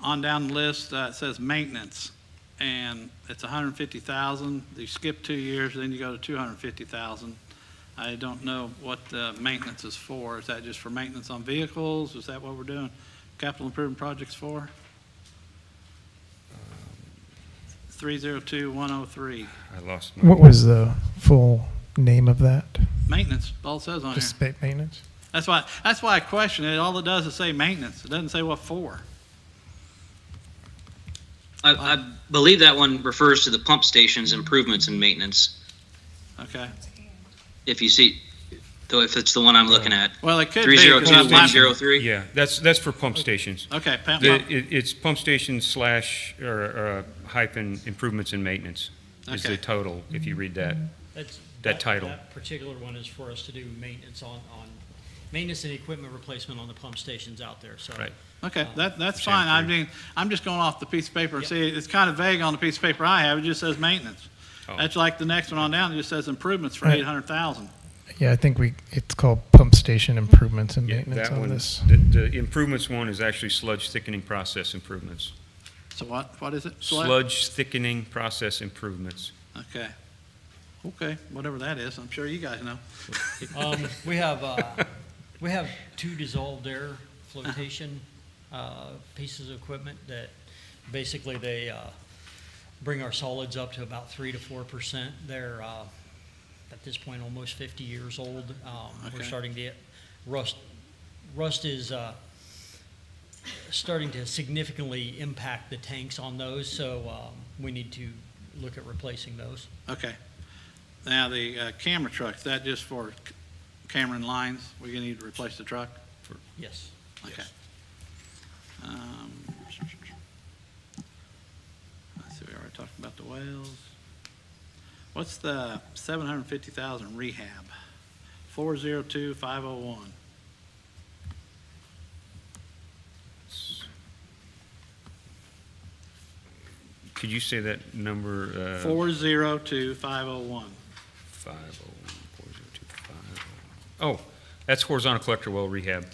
on down the list, uh, it says maintenance, and it's a hundred and fifty thousand. You skip two years, then you go to two hundred and fifty thousand. I don't know what the maintenance is for. Is that just for maintenance on vehicles? Is that what we're doing? Capital improvement projects for? Three zero two one oh three. I lost my. What was the full name of that? Maintenance, all it says on here. Just state maintenance? That's why, that's why I question it. All it does is say maintenance. It doesn't say what for. I, I believe that one refers to the pump station's improvements and maintenance, Okay. if you see, though if it's the one I'm looking Uh, at. Well, it could be. Three zero 'cause I two one might- zero three? Yeah, that's, that's for pump stations. Okay, Pat, The, my- it, it's pump station slash, or, or hyphen improvements and maintenance is the Okay. total, if you read that. Mm-hmm. That's. title. That particular one is for us to do maintenance on, on, maintenance and equipment replacement on the pump stations out there, so. Right. okay, that, that's Sam, fine. I three. mean, I'm just going off the piece of paper. Yep. See, it's kind of vague on the piece of paper I have. It just says maintenance. Oh. That's like the next one on down. It just says improvements for Right. eight hundred thousand. Yeah, I think we, it's called pump station improvements and Yeah, maintenance that on one, this. the, the improvements one is actually sludge thickening process improvements. So what, what is it? Select? Sludge thickening process improvements. Okay. Okay, whatever that is, I'm sure you guys know. Um, we have, uh, we have two dissolved air flotation, uh, pieces of equipment that basically they, uh, bring our solids up to about three to four percent. They're, uh, at this point, almost fifty years old. Um, we're Okay. starting to get rust, rust is, uh, starting to significantly impact the tanks on those, so, um, we need to look at replacing those. Okay. Now, the uh, camera truck, is that just for c- camera and lines? We're gonna need to replace the truck? Yes. Okay. Um, Let's see, we already talked about the whales. What's the seven hundred and fifty thousand rehab? Four zero two five oh one. Could you say that number? uh, Four zero two five oh one. Five oh one, four zero two, five oh one. Oh, that's horizontal collector well rehab.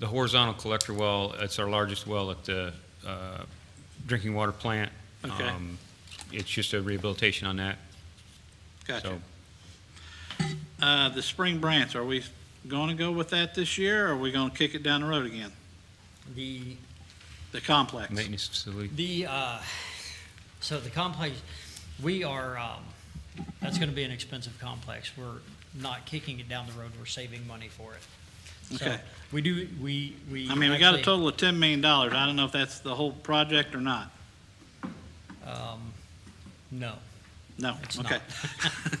The horizontal collector well, it's our largest well at the uh, drinking water plant. Okay. Um, It's just a rehabilitation on that. Gotcha. So Uh, the spring branch, are we gonna go with that this year, or are we gonna kick it down the road again? The The complex? maintenance facility. The, uh, so the complex, we are, um, that's going to be an expensive complex. We're not kicking it down the road, we're saving money for it. So, Okay. We do, we, we. I mean, we got a actually- total of ten million dollars. I don't know if that's the whole project or not. um, No. No, It's okay. not.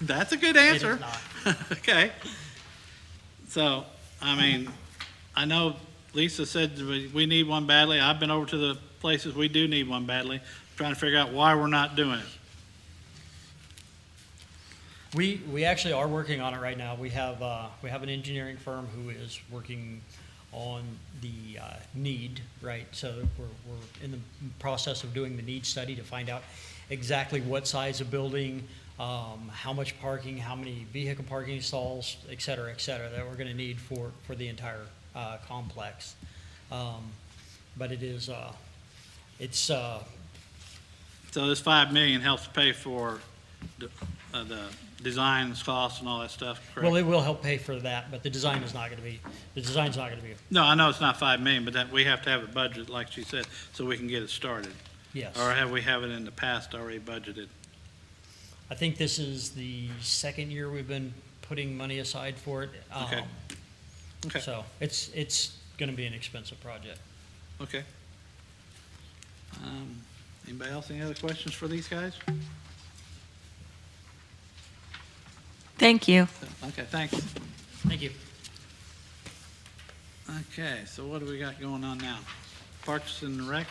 That's a good it is answer. not. Okay. So, I mean, I know Lisa said we, we need one badly. I've been over to the places we do need one badly, trying to figure out why we're not doing it. We, we actually are working on it right now. We have, uh, we have an engineering firm who is working on the, uh, need, right? So we're, we're in the process of doing the need study to find out exactly what size of building, um, how much parking, how many vehicle parking stalls, et cetera, et cetera, that we're gonna need for, for the entire, uh, complex. Um, but it is, uh, it's, uh, So this five million helps pay for the, uh, the designs costs and all that stuff, well, correct? it will help pay for that, but the design is not gonna be, the design's not gonna be, No, I know it's not five million, but that, we have to have a budget, like she said, so we can get it started. yes. Or have we have it in the past already budgeted? I think this is the second year we've been putting money aside for it. um, Okay. Okay. So it's, it's going to be an expensive project. Okay. Um, Anybody else, any other questions for these guys? Thank you. Okay, thanks. Thank you. Okay, so what do we got going on now? Parks and Rec?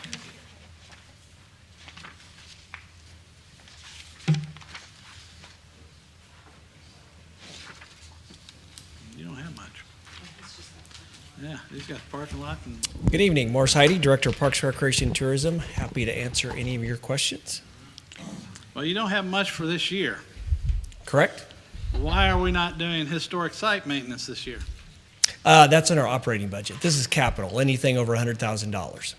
You don't have much. Yeah, he's got parking lot and, Good evening, Morris Heidi, Director of Parks, Recreation, and Tourism. Happy to answer any of your questions. well, you don't have much for this year. Correct? Why are we not doing historic site maintenance this year? Uh, that's in our operating budget. This is capital, anything over $100,000.